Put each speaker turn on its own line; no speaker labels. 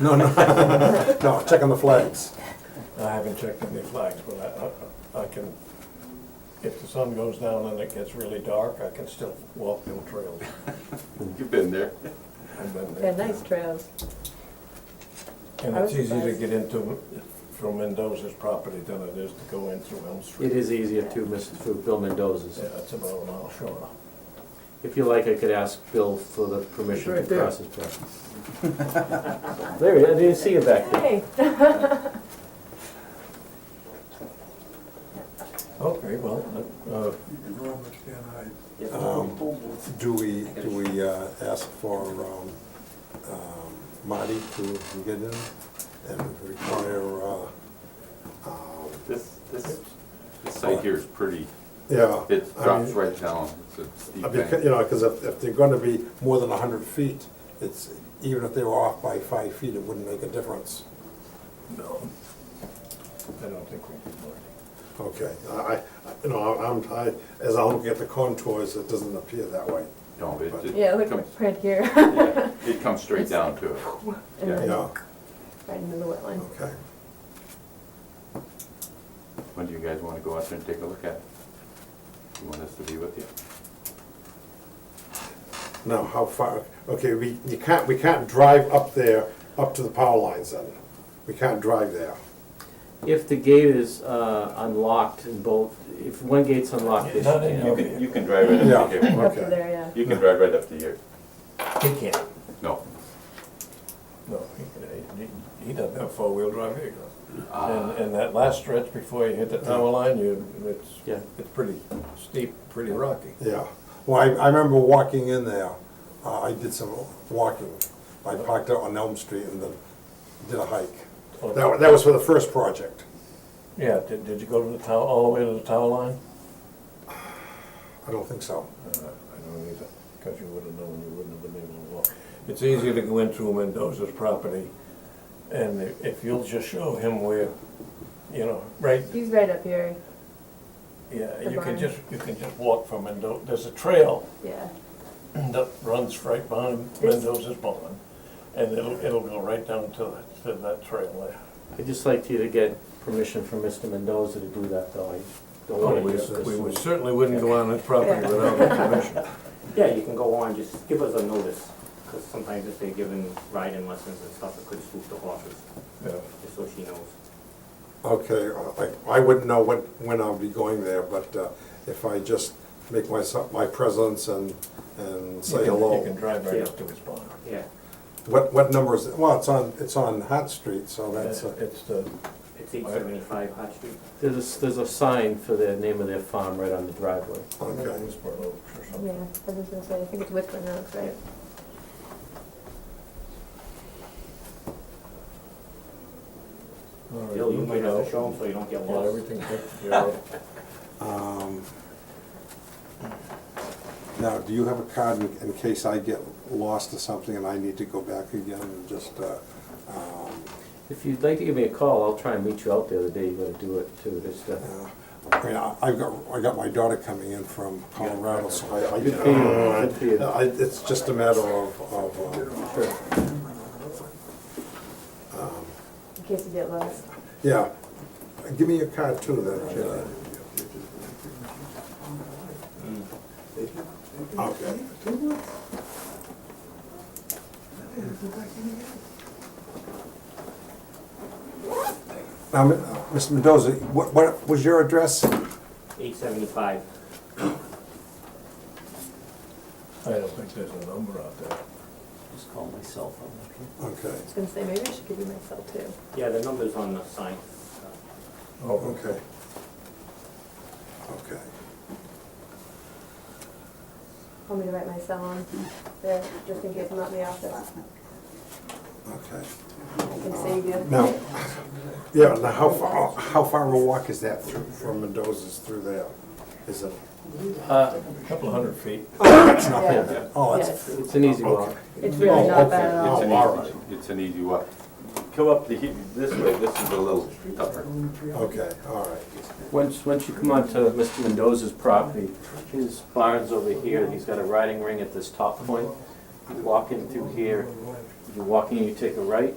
No, no, no, check on the flags.
I haven't checked any flags, but I- I, I can, if the sun goes down and it gets really dark, I can still walk them trails.
You've been there.
I've been
They're
there.
nice trails.
And
I
it's
was
easy to
surprised.
get into, from Mendoza's property than it is to go in through Elm Street.
It is easier to, Mr. through Bill Mendoza's.
Yeah, it's about a mile short.
If you like, I could ask Bill for the permission
It's right
to
there.
cross his property. There, he is. I didn't see you back there.
Hey,
Okay, well, uh,
Um, Do we, do we uh, ask for um, um, Marty to to get in and require, uh, um,
This, this, this
Oh.
site here is pretty,
yeah.
it
I
drops
mean,
right down, it's a steep
I mean,
bank.
You know, because if, if they're gonna be more than hundred feet, it's, even if they were off by five feet, it wouldn't make a difference.
no, I don't think we can, Marty.
Okay, I, I- you know, I'm, I, as I look at the contours, it doesn't appear that way.
No, it, it.
yeah, look,
comes-
right here,
yeah, It comes straight down to it.
and then
Yeah,
right into the wetland.
okay.
When do you guys wanna go out there and take a look at it? You want us to be with you?
Now, how far, okay, we, you can't, we can't drive up there, up to the power lines then. We can't drive there.
If the gate is uh, unlocked and both, if one gate's unlocked, they
Not in
should-
your-
you can drive right
up to here.
Up
Okay.
to there, yeah.
You can drive right up to here.
He can't,
No.
no, he can- he, he doesn't have four-wheel drive either. And,
Ah,
and that last stretch before you hit the tower line, you, it's,
Yeah.
it's pretty steep, pretty rocky.
Yeah. Well, I, I remember walking in there. Uh, I did some walking. I parked out on Elm Street and then did a hike. That, wa- that was for the first project.
Yeah, did, did you go to the tower, all the way to the tower line?
I don't think so.
Uh, I don't either, because you would have known, you wouldn't have been able to walk. It's easier to go in through Mendoza's property, and if- if you'll just show him where, you know, right,
He's right up here,
yeah,
The
you
barn.
can just, you can just walk from Mendoza, there's a trail
yeah.
that runs right behind
This-
Mendoza's barn, and it'll, it'll go right down to, that- to that trail there.
I'd just like you to get permission from Mr. Mendoza to do that, though. I don't
Oh,
want
we
to just
we would
assume.
certainly wouldn't go on his property
Yeah.
without his permission.
Yeah, you can go on, just give us a notice, because sometimes if they're giving riding lessons and stuff, it could spook the horses,
Yeah.
just so she knows.
Okay, uh, I, I wouldn't know when, when I'll be going there, but uh, if I just make myself, my presence and, and
You
say
can-
hello.
You can drive right up to his barn.
Yeah,
What, what number is it? Well, it's on, it's on Hot Street, so that's, uh,
It's the,
it's eight seventy-five Hot Street.
There's, a s- there's a sign for the name of their farm right on the driveway.
okay.
His barn Oaks or
Yeah,
something.
I was gonna say, I think it's Whitman Oaks, right?
All right,
Bill, you
look
might
it
have
up.
to show them so you don't get
Get
lost.
everything taken care of.
Um, Now, do you have a card in- in case I get lost or something and I need to go back again and just, uh, um,
If you'd like to give me a call, I'll try and meet you out there the day you're gonna do it, too, just to
uh, I mean, I- I've got, I got my daughter coming in from Colorado, so I, I,
Good for you, good for you.
I- it's just a matter of, of, uh,
Sure.
In case you get lost.
yeah. Give me your card too then, Jen. Okay. Now, Mi- Mr. Mendoza, what, what was your address?
Eight seventy-five,
I don't think there's a number out there.
Just call my cell phone,
Okay,
okay?
I was gonna say, maybe I should give you my cell too.
yeah, the number's on the sign.
Oh,
okay. Okay.
Want me to write my cell on there, just in case I'm not in the office?
Okay.
I can save you.
Now, yeah, now how far, how far a walk is that through, from Mendoza's through there? Is it?
Uh,
a couple hundred feet.
Yeah,
Oh,
yeah,
that's,
it's-
it's an easy walk.
It's really not
okay.
bad at
Oh,
all.
It's an
all
easy, it's an easy walk. Come up the, he- this way, this is a little tougher.
okay, all right.
Once, once you come onto Mr. Mendoza's property, his barn's over here, he's got a riding ring at this top point. You walk in through here, you walk in, you take a right,